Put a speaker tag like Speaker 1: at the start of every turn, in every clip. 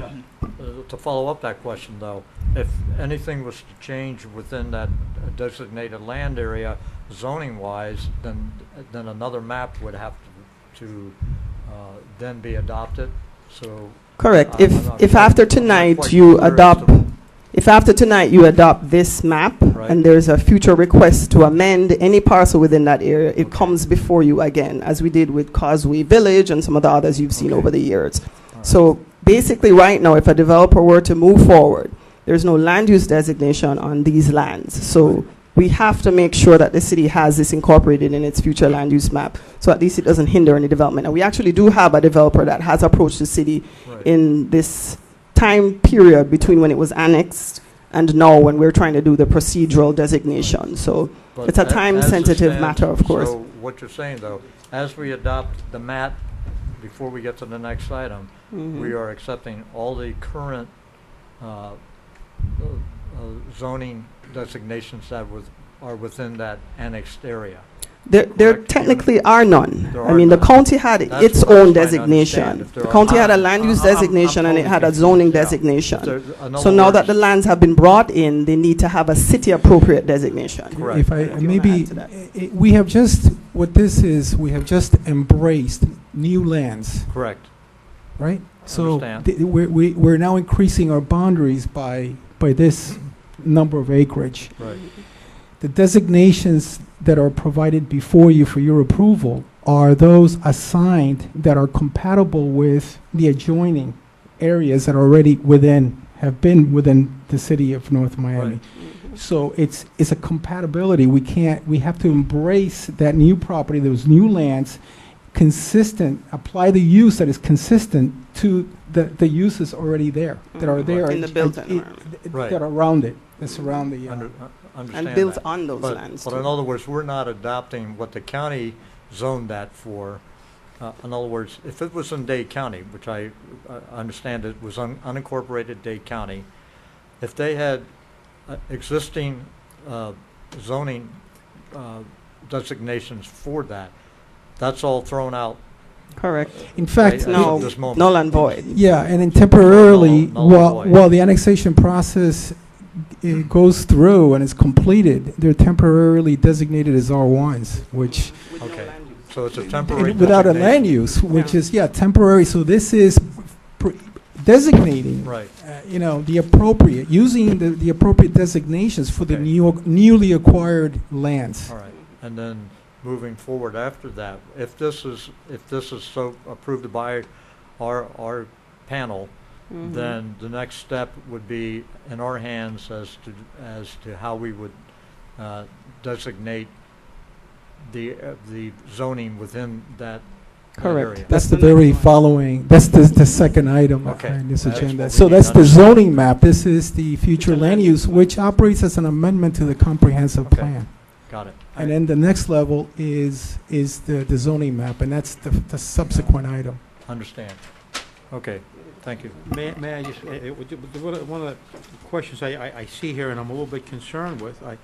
Speaker 1: Uh, to follow up that question though, if anything was to change within that designated land area zoning wise, then, then another map would have to, to, uh, then be adopted, so.
Speaker 2: Correct.
Speaker 1: I-
Speaker 2: If,
Speaker 1: I'm not
Speaker 2: if
Speaker 1: quite-
Speaker 2: after
Speaker 1: I'm not
Speaker 2: tonight
Speaker 1: quite
Speaker 2: you
Speaker 1: sure as
Speaker 2: adopt,
Speaker 1: to-
Speaker 2: if after tonight you adopt this map
Speaker 1: Right.
Speaker 2: and there's a future request to amend any parcel within that area,
Speaker 1: Okay.
Speaker 2: it comes before you again, as we did with Causeway Village and some of the others you've seen
Speaker 1: Okay.
Speaker 2: over the years.
Speaker 1: All right.
Speaker 2: So basically, right now, if a developer were to move forward, there's no land use designation on these lands. So we have to make sure that the city has this incorporated in its future land use map, so at least it doesn't hinder any development. And we actually do have a developer that has approached the city
Speaker 1: Right.
Speaker 2: in this time period between when it was annexed and now when we're trying to do the procedural designation. So
Speaker 1: But
Speaker 2: It's a
Speaker 1: a-
Speaker 2: time-sensitive
Speaker 1: as it
Speaker 2: matter, of
Speaker 1: stands-
Speaker 2: course.
Speaker 1: So what you're saying, though, as we adopt the map, before we get to the next item, we
Speaker 2: Mhm.
Speaker 1: are accepting all the current uh, uh, zoning designations that was, are within that annexed area.
Speaker 2: there, there
Speaker 1: correct.
Speaker 2: technically are none.
Speaker 1: There
Speaker 2: I
Speaker 1: are
Speaker 2: mean, the
Speaker 1: none.
Speaker 2: county had
Speaker 1: That's
Speaker 2: its
Speaker 1: what I'm
Speaker 2: own
Speaker 1: trying to understand,
Speaker 2: designation.
Speaker 1: if there
Speaker 2: The
Speaker 1: are
Speaker 2: county had a
Speaker 1: none.
Speaker 2: land
Speaker 1: I-
Speaker 2: use
Speaker 1: I'm- I'm
Speaker 2: designation and it
Speaker 1: totally
Speaker 2: had a
Speaker 1: confused,
Speaker 2: zoning
Speaker 1: yeah.
Speaker 2: designation.
Speaker 1: There- in other
Speaker 2: So now that
Speaker 1: words-
Speaker 2: the lands have been brought in, they need to have a city-appropriate designation.
Speaker 1: Correct.
Speaker 3: If I,
Speaker 2: If you wanna
Speaker 3: maybe,
Speaker 2: add to that.
Speaker 3: i- i- we have just, what this is, we have just embraced new lands,
Speaker 1: Correct.
Speaker 3: right? So
Speaker 1: Understand.
Speaker 3: th- we're, we- we're now increasing our boundaries by, by this number of acreage.
Speaker 1: Right.
Speaker 3: The designations that are provided before you for your approval are those assigned that are compatible with the adjoining areas that are already within, have been within the city of North Miami.
Speaker 1: Right.
Speaker 3: So it's, it's a compatibility. We can't, we have to embrace that new property, those new lands, consistent, apply the use that is consistent to the, the uses already there, that are there.
Speaker 2: Mm-hmm. In the built environment.
Speaker 1: Right.
Speaker 3: That are around it, that surround the,
Speaker 1: Under-
Speaker 3: uh,
Speaker 1: uh, Understand
Speaker 2: And built
Speaker 1: that.
Speaker 2: on those
Speaker 1: But-
Speaker 2: lands.
Speaker 1: But
Speaker 2: too.
Speaker 1: in other words, we're not adopting what the county zoned that for. Uh, In other words, if it was in Dade County, which I uh, understand it was un- unincorporated Dade County, if they had uh, existing uh, zoning uh, designations for that, that's all thrown out.
Speaker 2: Correct.
Speaker 3: in
Speaker 1: right,
Speaker 3: fact,
Speaker 1: at
Speaker 2: no,
Speaker 1: this moment.
Speaker 2: Null and void.
Speaker 3: yeah, and then temporarily,
Speaker 1: Null- null
Speaker 3: while,
Speaker 1: and void.
Speaker 3: while the annexation process uh, goes through and is completed, they're temporarily designated as R1s, which
Speaker 1: Okay. So it's a temporary
Speaker 3: And Without a land
Speaker 1: designation.
Speaker 3: use, which
Speaker 2: Yeah.
Speaker 3: is, yeah, temporary, so this is pr- designating, uh,
Speaker 1: Right,
Speaker 3: you know, the appropriate, using the, the appropriate designations for the
Speaker 1: Okay.
Speaker 3: new, newly acquired lands.
Speaker 1: all right. And then moving forward after that, if this is, if this is so approved by our, our panel,
Speaker 2: Mm-hmm.
Speaker 1: then the next step would be in our hands as to, as to how we would uh, designate the, uh, the zoning within that that
Speaker 2: Correct.
Speaker 1: area.
Speaker 3: That's
Speaker 2: That's
Speaker 3: the
Speaker 2: the
Speaker 3: very
Speaker 2: next one.
Speaker 3: following, that's the, the second item
Speaker 1: Okay.
Speaker 3: on this
Speaker 1: That's
Speaker 3: agenda.
Speaker 1: what we
Speaker 3: So
Speaker 1: need to
Speaker 3: that's the
Speaker 1: understand.
Speaker 3: zoning map, this is the future land use, which operates as an amendment to the comprehensive
Speaker 1: Okay.
Speaker 3: plan.
Speaker 1: Got it.
Speaker 3: And then the next level is, is the, the zoning map, and that's the, the subsequent item.
Speaker 1: Understand. Okay, thank you.
Speaker 4: May, may I just, eh, eh, would you- one of the- one of the questions I, I, I see here and I'm a little bit concerned with, I,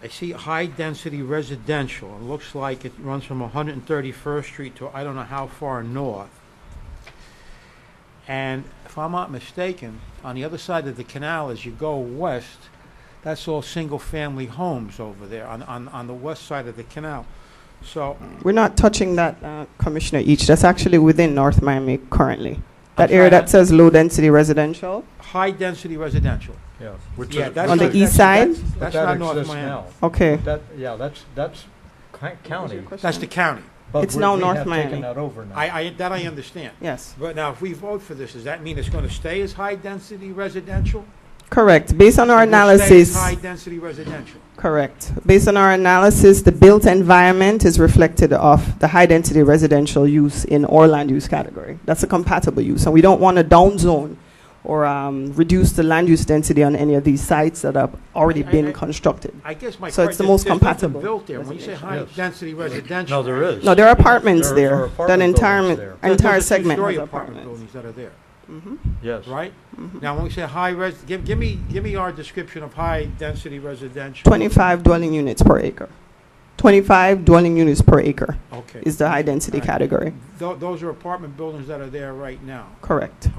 Speaker 4: I see high-density residential, it looks like it runs from 131st Street to I don't know how far north. And if I'm not mistaken, on the other side of the canal, as you go west, that's all single-family homes over there on, on, on the west side of the canal. So,
Speaker 2: We're not touching that, uh, Commissioner Each. That's actually within North Miami currently. That
Speaker 4: sorry,
Speaker 2: area
Speaker 4: I-
Speaker 2: that says low-density residential
Speaker 4: high-density residential,
Speaker 1: Yeah. which
Speaker 4: Yeah,
Speaker 1: is-
Speaker 4: that's
Speaker 2: on
Speaker 4: not-
Speaker 2: the east side?
Speaker 1: But
Speaker 4: that's
Speaker 1: that
Speaker 4: not North
Speaker 1: exists
Speaker 4: Miami.
Speaker 1: now.
Speaker 2: Okay.
Speaker 1: That, yeah, that's, that's Crank County.
Speaker 4: That's the county.
Speaker 1: but
Speaker 2: It's
Speaker 1: we-
Speaker 2: now
Speaker 1: we
Speaker 2: North
Speaker 1: have
Speaker 2: Miami.
Speaker 1: taken that over now.
Speaker 4: I, I, that I understand.
Speaker 2: Yes,
Speaker 4: But now, if we vote for this, does that mean it's gonna stay as high-density residential?
Speaker 2: correct. Based on our
Speaker 4: It will stay as
Speaker 2: analysis,
Speaker 4: High-density residential.
Speaker 2: correct. Based on our analysis, the built environment is reflected of the high-density residential use in our land use category. That's a compatible use, and we don't want to downzone or um, reduce the land use density on any of these sites that have already
Speaker 4: I- I-
Speaker 2: been
Speaker 4: I-
Speaker 2: constructed.
Speaker 4: I guess my.
Speaker 2: So it's the
Speaker 4: question-
Speaker 2: most
Speaker 4: there's nothing
Speaker 2: compatible
Speaker 4: Built there, when you say
Speaker 2: residential.
Speaker 1: Yes.
Speaker 4: high-density
Speaker 1: No,
Speaker 4: residential.
Speaker 1: there is.
Speaker 2: No, there are apartments
Speaker 1: There- there
Speaker 2: there.
Speaker 1: are
Speaker 2: That
Speaker 1: apartment buildings
Speaker 2: entire,
Speaker 1: there.
Speaker 4: there's
Speaker 2: entire
Speaker 4: those are
Speaker 2: segment
Speaker 4: two-story
Speaker 2: has
Speaker 4: apartment
Speaker 2: apartments.
Speaker 4: buildings that are there,
Speaker 2: Mhm.
Speaker 1: Yes.
Speaker 4: right?
Speaker 2: Mhm.
Speaker 4: Now, when we say high res, give, give me, give me our description of high-density residential.
Speaker 2: 25 dwelling units per acre. 25 dwelling units per acre
Speaker 4: Okay.
Speaker 2: is the high-density
Speaker 4: All right.
Speaker 2: category.
Speaker 4: Tho- Those are apartment buildings that are there right now.
Speaker 2: Correct.